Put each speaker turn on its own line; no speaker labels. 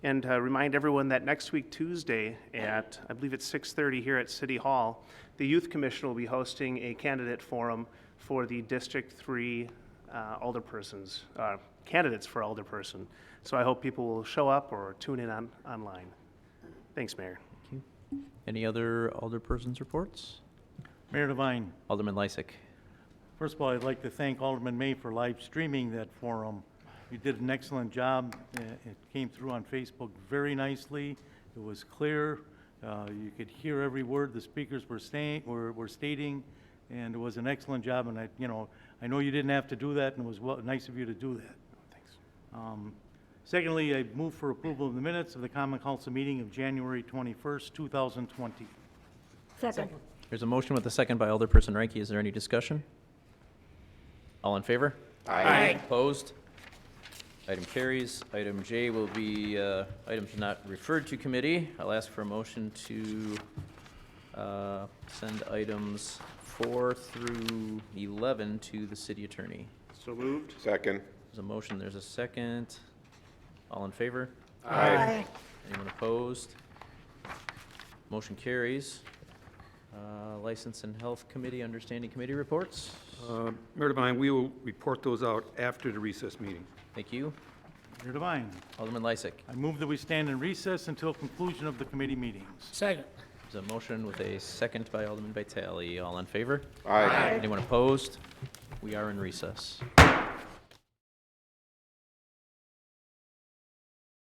And uh, remind everyone that next week, Tuesday, at, I believe it's 6:30 here at City Hall, the Youth Commission will be hosting a candidate forum for the District 3 uh, alderpersons, uh, candidates for alderperson. So I hope people will show up or tune in on, online. Thanks, Mayor.
Thank you. Any other alderpersons' reports?
Mayor Devine,
Alderman Lysick.
first of all, I'd like to thank Alderman May for live streaming that forum. You did an excellent job. Uh, It came through on Facebook very nicely. It was clear. Uh, You could hear every word the speakers were saying, were were stating, and it was an excellent job. And I, you know, I know you didn't have to do that, and it was well- nice of you to do that. Um, Secondly, I move for approval of the minutes of the Common Council meeting of January 21st, 2020.
Second.
There's a motion with a second by Alderperson Ranky. Is there any discussion? All in favor? Aye. Opposed? Item carries. Item J will be uh, items not referred to committee. I'll ask for a motion to uh, send items four through 11 to the city attorney.
So moved.
Second.
There's a motion, there's a second. All in favor?
Aye.
Anyone opposed? Motion carries. Uh, License and Health Committee, Understanding Committee reports.
Uh, Mayor Devine, we will report those out after the recess meeting.
Thank you.
Mayor Devine,
Alderman Lysick,
I move that we stand in recess until conclusion of the committee meetings.
Second.
there's a motion with a second by Alderman Vitale. All in favor?
Aye.
Anyone opposed? We are in recess.